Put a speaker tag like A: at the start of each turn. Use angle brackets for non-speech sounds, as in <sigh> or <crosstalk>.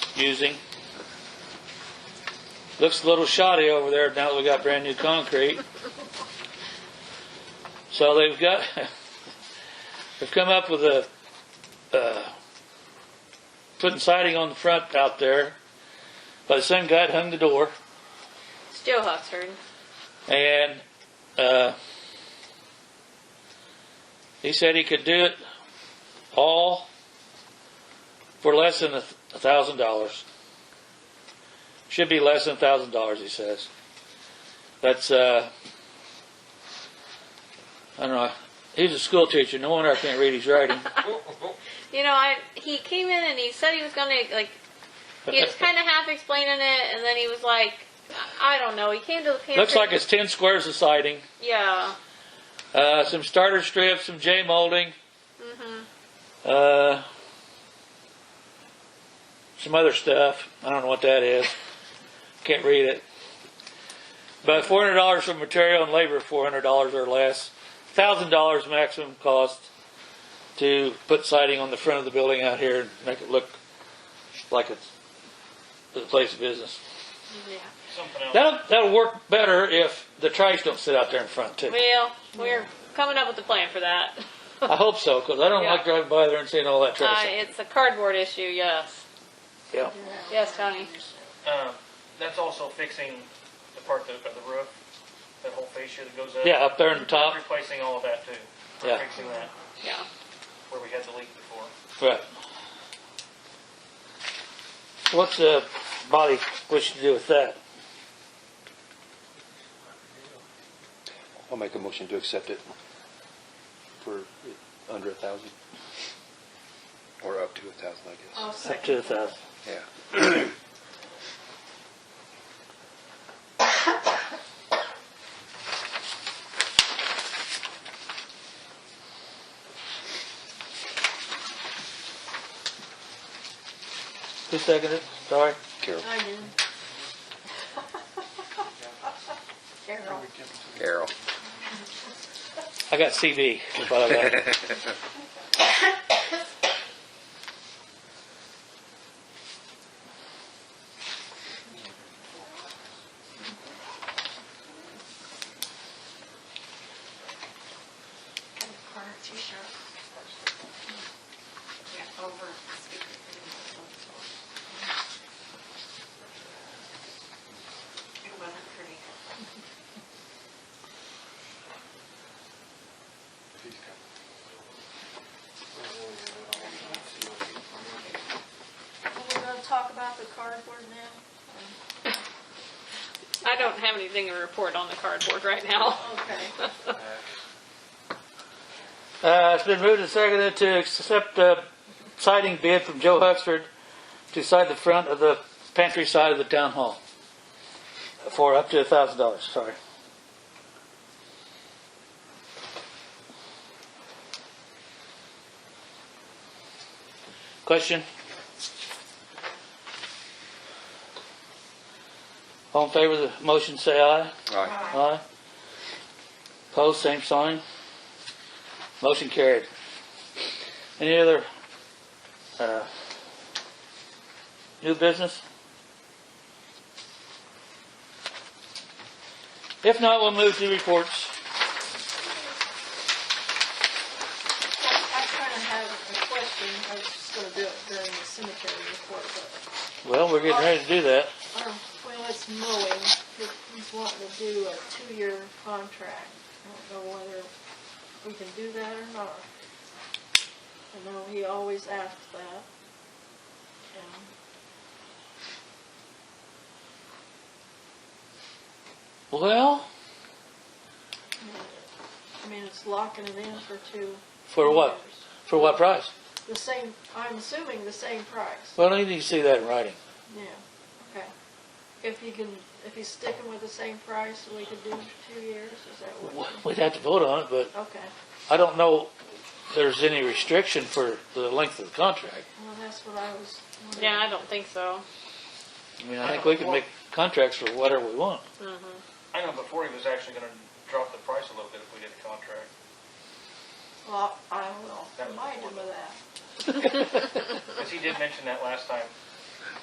A: confusing. Looks a little shoddy over there now that we got brand new concrete. So they've got, <laughs> they've come up with a, uh, putting siding on the front out there. But the same guy that hung the door
B: It's Joe Hawksford.
A: and, uh, he said he could do it all for less than a thousand dollars. Should be less than a thousand dollars, he says. That's, uh, I don't know. He's a school teacher. No wonder I can't read his writing.
B: You know, I he came in and he said he was gonna like he was kind of half explaining it, and then he was like, I don't know. He came to the pantry.
A: Looks like it's 10 squares of siding,
B: yeah.
A: uh, some starter strips, some J molding,
B: Mhm.
A: uh, some other stuff. I don't know what that is. Can't read it. But $400 for material and labor, $400 or less. $1,000 maximum cost to put siding on the front of the building out here and make it look like it's a place of business.
B: Yeah.
C: Something else.
A: That'll, that'll work better if the trash don't sit out there in front too.
B: Well, we're coming up with a plan for that.
A: I hope so, because I don't
B: Yeah.
A: like driving by there and seeing all that
B: Uh,
A: trash.
B: it's a cardboard issue. Yes.
A: yeah.
B: Yes, Tony.
C: Um, that's also fixing the part that, of the roof, that whole fascia that goes up.
A: yeah, up there in the top.
C: Replacing all of that too. We're
A: Yeah.
C: Fixing that
B: Yeah.
C: where we had the leak before.
A: Right. What's the body wish to do with that?
D: I'll make a motion to accept it for under a thousand. Or up to a thousand, I guess.
E: I'll
A: Up
E: second.
A: to the thousand.
D: Yeah.
A: Who seconded it? Sorry.
D: Carol.
E: I did. Carol.
D: Carol.
A: I got CB. is what <laughs> I got.
E: Got a corner t-shirt. Yeah, over. It wasn't pretty. We're gonna talk about the cardboard now?
B: I don't have anything to report on the cardboard right now.
E: Okay.
A: Uh, it's been moved and seconded to accept a siding bid from Joe Huxford to side the front of the pantry side of the town hall for up to a thousand dollars. Sorry. Question? All in favor of the motion, say aye.
D: Aye.
A: Aye. Pose same sign. Motion carried. Any other, uh, new business? If not, we'll move to reports.
E: I kind of have a question, I was just gonna do it during the cemetery report, but,
A: Well, we're getting ready to do that.
E: um, well, it's mowing, he's wanting to do a two-year contract. I don't know whether we can do that or not. I know he always asks that. Um,
A: Well,
E: I mean, it's locking it in for two.
A: for what?
E: years.
A: For what price?
E: The same, I'm assuming the same price,
A: Well, I need to see that in writing.
E: yeah, okay. If he can, if he's sticking with the same price, we could do two years, is that what?
A: W- We'd have to vote on it, but
E: Okay,
A: I don't know if there's any restriction for the length of the contract.
E: well, that's what I was wondering.
B: Yeah, I don't think so.
A: I mean, I think we can make contracts for whatever we want.
C: I know before he was actually gonna drop the price a little bit if we did a contract.
E: Well, I will remind him of that.
C: Cause he did mention that last time